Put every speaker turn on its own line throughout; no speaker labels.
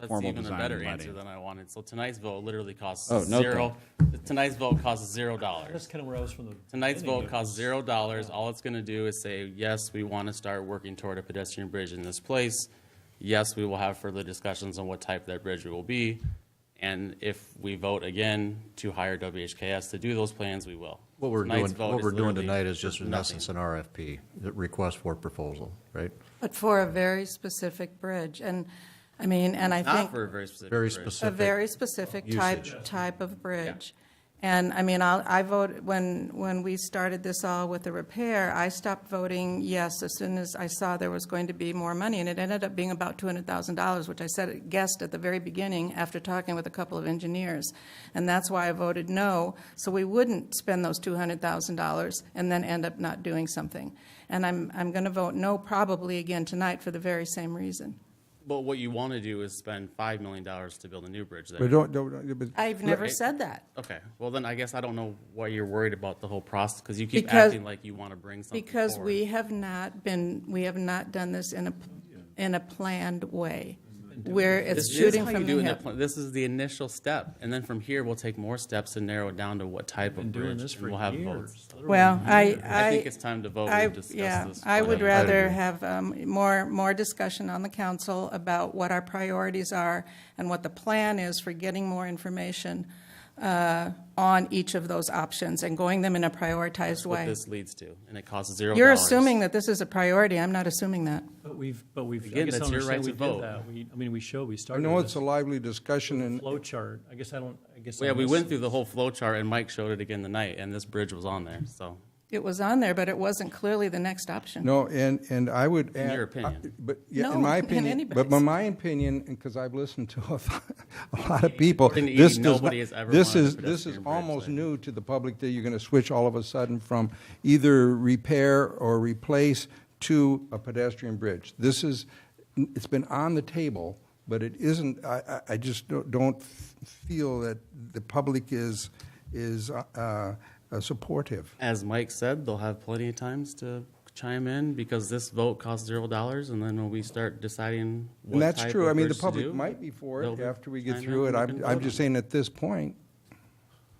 That's
formal
even a
design
better
and
answer
lighting.
than I wanted. So tonight's vote literally costs
Oh, no
zero. Tonight's vote costs zero dollars.
That's kind of where I was from the.
Tonight's
beginning.
vote costs zero dollars. All it's gonna do is say, yes, we wanna start working toward a pedestrian bridge in this place. Yes, we will have further discussions on what type that bridge will be. And if we vote again to hire WHKS to do those plans, we will.
What we're
Tonight's
doing,
vote
what we're doing
literally
tonight is just in
nothing.
essence an RFP, the request for proposal, right?
But for a very specific bridge, and, I mean, and I
Not
think,
for a very specific
Very
bridge.
a
specific.
very specific type, type of bridge. And, I mean, I'll, I vote, when, when we started this all with the repair, I stopped voting yes as soon as I saw there was going to be more money, and it ended up being about two hundred thousand dollars, which I said, guessed at the very beginning after talking with a couple of engineers. And that's why I voted no, so we wouldn't spend those two hundred thousand dollars and then end up not doing something. And I'm, I'm gonna vote no probably again tonight for the very same reason.
But what you wanna do is spend five million dollars to build a new bridge there.
But don't, don't, but.
I've never said that.
Okay, well then I guess I don't know why you're worried about the whole process, because you keep
Because-
acting like you want to bring something
Because
forward.
we have not been, we have not done this in a, in a planned way, where it's
This is
shooting
how
from
you do
the
in the
hip.
pla- This is the initial step, and then from here, we'll take more steps to narrow it down to what type of
Doing
bridge,
this
and
for
we'll have
years.
votes.
Well, I, I.
I think it's time to vote
I-
and discuss
yeah,
this.
I would
plan.
rather have um, more, more discussion on the council about what our priorities are and what the plan is for getting more information uh, on each of those options and going them in a prioritized
What
way.
this leads to, and it costs zero
You're
dollars.
assuming that this is a priority, I'm not assuming that.
But we've, but we've, I
Again,
guess I
that's
don't
your right
understand we
to vote.
did that. We, I mean, we showed, we
I
started
know it's
with
a lively discussion
a
and
flow chart. I guess I don't, I guess. I
Yeah, we
missed
went
it.
through the whole flow chart, and Mike showed it again tonight, and this bridge was on there, so,
It was on there, but it wasn't clearly the next option.
No, and, and I would add.
your opinion.
But, yeah,
No,
in my
in
opinion, but
anybody's.
in my opinion, because I've listened to a, a lot of people,
According to
this
Edie,
does not,
nobody has ever
this
wanted a
is, this is
pedestrian bridge
almost
there.
new to the public that you're gonna switch all of a sudden from either repair or replace to a pedestrian bridge. This is, it's been on the table, but it isn't, I, I, I just don't, don't feel that the public is, is, uh, uh, supportive.
as Mike said, they'll have plenty of times to chime in, because this vote costs zero dollars, and then when we start deciding what
And that's
type
true,
of
I mean, the
bridge to do,
public might be for
they'll
it
be
after we get
chiming
through
in
it.
and we
I'm,
can
I'm
vote
just
on it.
saying at this point.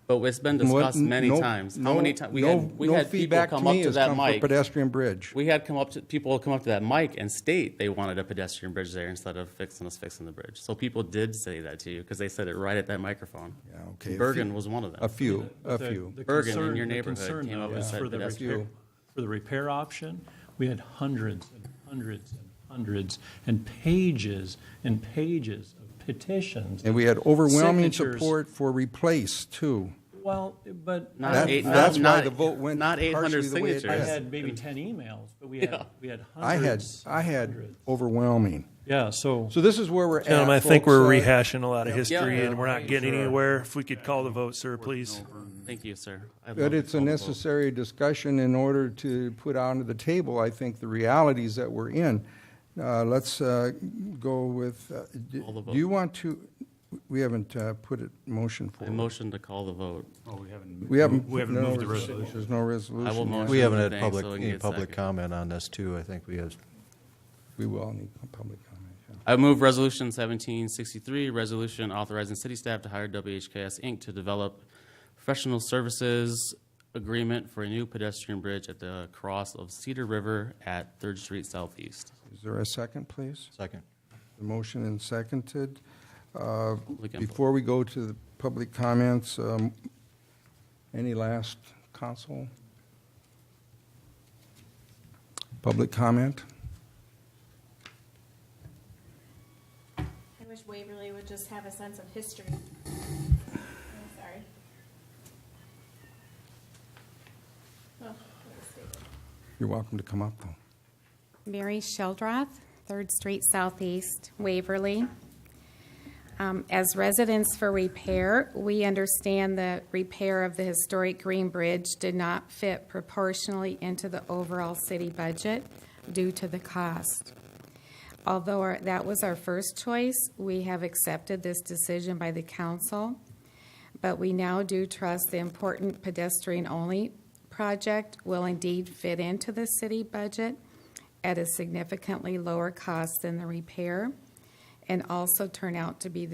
But it's been
what-
discussed many
no-
times. How many times, we
no-
had, we
no
had people
feedback
come
me
up to
has
that
come for
mic.
Pedestrian bridge.
We had come up to, people come up to that mic and state they wanted a pedestrian bridge there instead of fixing us fixing the bridge. So people did say that to you, because they said it right at that microphone.
Yeah, okay, a
Bergen
few-
was one of them.
A few, a
The-
few.
the
Bergen in
concern-
your
the
neighborhood
concern,
came up
though,
and
is
said
for the
pedestrian.
repair- For the repair option, we had hundreds and hundreds and hundreds and pages and pages of petitions.
And we had overwhelming
signatures.
support for replace too.
Well, but.
Not
That-
eight-
that's
not-
why
not-
the vote went
Not eight hundred
partially the way it
signatures.
did.
I had maybe 10 emails, but we had, we had
I had,
hundreds.
I had
hundreds.
overwhelming.
Yeah, so.
So this is where we're at.
Gentlemen, I think
folks.
we're
Uh,
rehashing a lot of
Yeah.
history and we're not getting anywhere. If we could call the vote, sir, please.
Thank you, sir. I'd love
But
to
it's a
call the vote.
necessary discussion in order to put onto the table, I think, the realities that we're in. Uh, Let's uh, go with, uh, d-
All the
do
vote.
you want to, we haven't uh, put a motion
I
forward.
motion to call the vote.
We haven't.
We haven't
no
moved the
res-
resolution.
There's no resolution.
I will
yet.
motion.
We haven't had
Thanks,
public,
so we can
any
get
public
second.
comment on this too, I think we have.
We will need public comment. yeah.
I move Resolution seventeen sixty-three, resolution authorizing city staff to hire WHKS Inc. to develop professional services agreement for a new pedestrian bridge at the cross of Cedar River at Third Street Southeast.
Is there a second, please?
Second.
The motion and seconded. Uh,
Public input.
Before we go to the public comments, um, any last council? Public comment?
I wish Waverly would just have a sense of history. I'm sorry. Oh, that was stupid.
You're welcome to come up, though.
Mary Sheldroth, Third Street Southeast, Waverly. Um, As residents for repair, we understand the repair of the historic Green Bridge did not fit proportionally into the overall city budget due to the cost. Although our- that was our first choice, we have accepted this decision by the council, but we now do trust the important pedestrian-only project will indeed fit into the city budget at a significantly lower cost than the repair, and also turn out to be the